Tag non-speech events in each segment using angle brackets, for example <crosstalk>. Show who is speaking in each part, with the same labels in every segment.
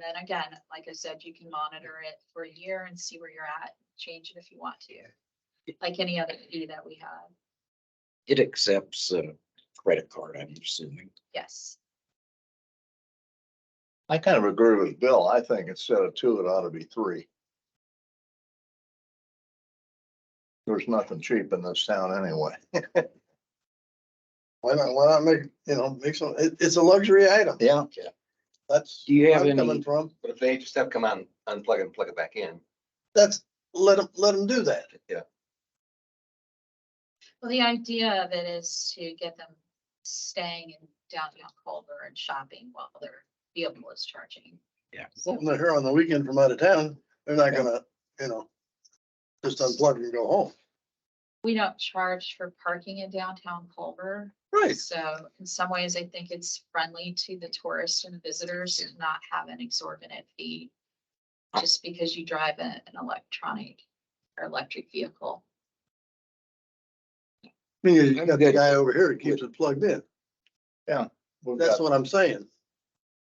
Speaker 1: then again, like I said, you can monitor it for a year and see where you're at, change it if you want to. Like any other fee that we have,
Speaker 2: It accepts a credit card, I'm assuming.
Speaker 1: yes.
Speaker 3: I kind of agree with Bill. I think instead of two, it ought to be three. There's nothing cheap in this town anyway.
Speaker 4: Why not, why not make, you know, make some, it, it's a luxury item.
Speaker 3: Yeah.
Speaker 4: That's.
Speaker 2: Do you
Speaker 4: where
Speaker 2: have
Speaker 4: I'm Coming
Speaker 2: any,
Speaker 4: from,
Speaker 5: But if they just have come out and unplug it and plug it back in,
Speaker 4: that's, let them, let them do that.
Speaker 5: yeah,
Speaker 1: Well, the idea of it is to get them staying in downtown Culver and shopping while their vehicle is charging.
Speaker 2: Yeah.
Speaker 4: When they're here on the weekend from out of town, they're not
Speaker 3: Yeah.
Speaker 4: gonna, you know, just unplug and go home.
Speaker 1: We don't charge for parking in downtown Culver.
Speaker 4: Right.
Speaker 1: So in some ways, I think it's friendly to the tourists and visitors to not have an exorbitant fee. Just because you drive a- an electronic or electric vehicle.
Speaker 4: I mean, you
Speaker 2: I'm
Speaker 4: got the
Speaker 2: good.
Speaker 4: guy over here that keeps it plugged in.
Speaker 3: We've
Speaker 4: That's
Speaker 3: got-
Speaker 4: what I'm saying.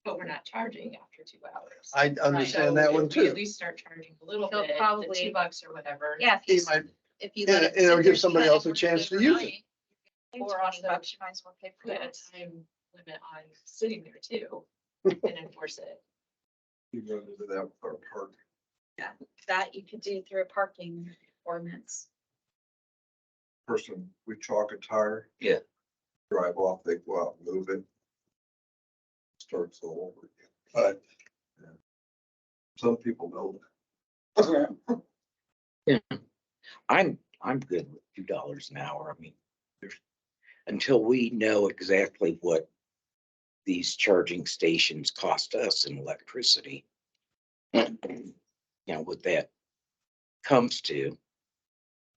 Speaker 6: But we're not charging after two hours.
Speaker 4: I understand that
Speaker 6: So
Speaker 4: one
Speaker 6: if we At
Speaker 4: too.
Speaker 6: least start charging a little
Speaker 1: He'll
Speaker 6: bit, the
Speaker 1: probably-
Speaker 6: two bucks or whatever.
Speaker 1: Yeah.
Speaker 4: He might,
Speaker 1: If you
Speaker 4: Yeah,
Speaker 1: let it.
Speaker 4: and it'll
Speaker 1: sit
Speaker 4: give
Speaker 1: there
Speaker 4: somebody else a
Speaker 1: overnight,
Speaker 4: chance to use it.
Speaker 1: pay
Speaker 6: Or
Speaker 1: 20
Speaker 6: also-
Speaker 1: bucks, You might as well pay for
Speaker 6: Put a
Speaker 1: it.
Speaker 6: time limit on sitting there
Speaker 4: <laughs>
Speaker 6: too and enforce it.
Speaker 5: you go to that for park.
Speaker 1: That you could do through a parking ordinance.
Speaker 7: person, we chalk a tire.
Speaker 5: Yeah.
Speaker 7: Drive off, they go out, move it. Starts all over again.
Speaker 4: Right.
Speaker 7: Yeah. Some people know
Speaker 2: I'm, I'm good with two dollars an hour. I mean, there's, until we know exactly what these charging stations cost us in electricity. You know, what that comes to,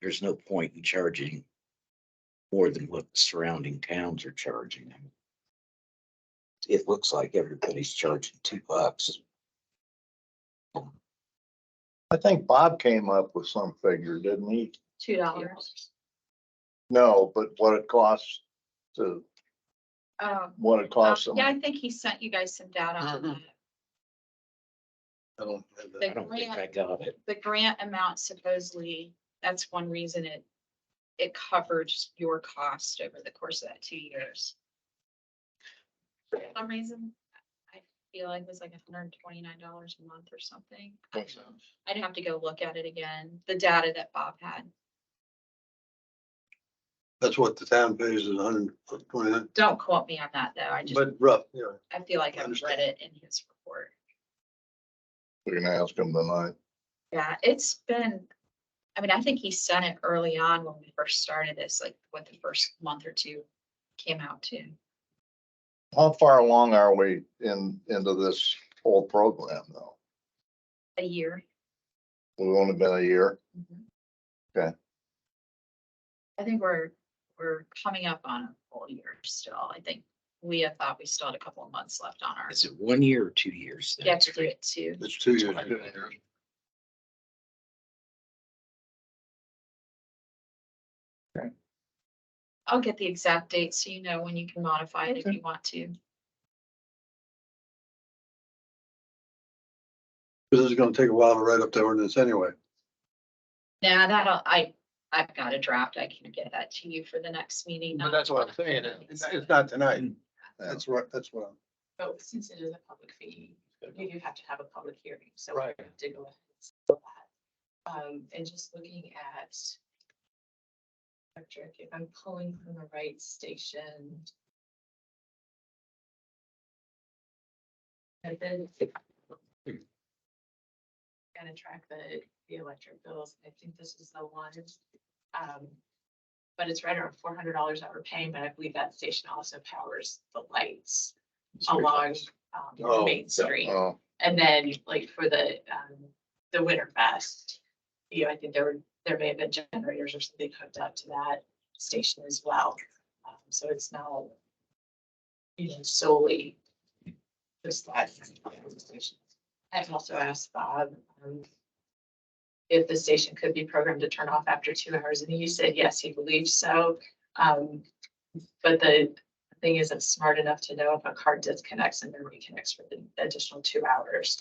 Speaker 2: there's no point in charging more than what the surrounding towns are charging. It looks like everybody's charging two bucks.
Speaker 3: I think Bob came up with some figure, didn't he?
Speaker 1: Two dollars.
Speaker 3: No, but what it costs to,
Speaker 1: Um,
Speaker 3: what it costs them.
Speaker 1: yeah, I think he sent you guys some data on
Speaker 4: Mm-hmm.
Speaker 1: that.
Speaker 4: I don't have that.
Speaker 2: I don't think I got it.
Speaker 1: the grant amount supposedly, that's one reason it, it covers your cost over the course of that two years. For some reason, I feel like it was like hundred and twenty-nine dollars a month or something. I don't know. I'd have to go look at it again, the data that Bob had.
Speaker 4: That's what the town pays is hundred twenty-nine,
Speaker 1: Don't quote me on that, though. I just,
Speaker 4: but rough, yeah.
Speaker 1: I feel like I've read
Speaker 4: understand.
Speaker 1: it in his report.
Speaker 3: We're gonna ask him tonight.
Speaker 1: Yeah, it's been, I mean, I think he sent it early on when we first started this, like what the first month or two came out to.
Speaker 3: How far along are we in, into this whole program though?
Speaker 1: a year.
Speaker 3: We've only been a year. Okay.
Speaker 1: Mm-hmm. I think we're, we're coming up on a full year still. I think we had thought we still had a couple of months left on ours.
Speaker 2: Is it one year or two years? then?
Speaker 1: You have to do it too.
Speaker 4: It's two years.
Speaker 1: I'll get the exact date so you know when you can modify it if you want to.
Speaker 4: This is gonna take a while to write up the ordinance anyway.
Speaker 1: Now that'll, I, I've got a draft. I can get that to you for the next meeting. not-
Speaker 4: not tonight.
Speaker 3: Yeah.
Speaker 4: That's right, that's what I'm.
Speaker 6: But since it is a public fee, you do have to have a public hearing, so. we
Speaker 4: Right.
Speaker 6: have To go ahead. and settle that. Um, and just looking at. Electric, if I'm pulling from the right station. And then. Gonna track the, the electric bills, I think this is the one. Um, but it's right around four hundred dollars that we're paying, but I believe that station also powers the lights along um,
Speaker 4: Oh,
Speaker 6: Main Street.
Speaker 3: Oh,
Speaker 6: And then like for the, um, the Winter Fest, you know, I think there were, there may have been generators or something hooked up to that station as well. Um, So it's now, you know, solely just that station. I've also asked Bob, um, if the station could be programmed to turn off after two hours and he said, yes, he believes so. Um, but the, thing isn't smart enough to know if a car disconnects and then reconnects for the additional two hours.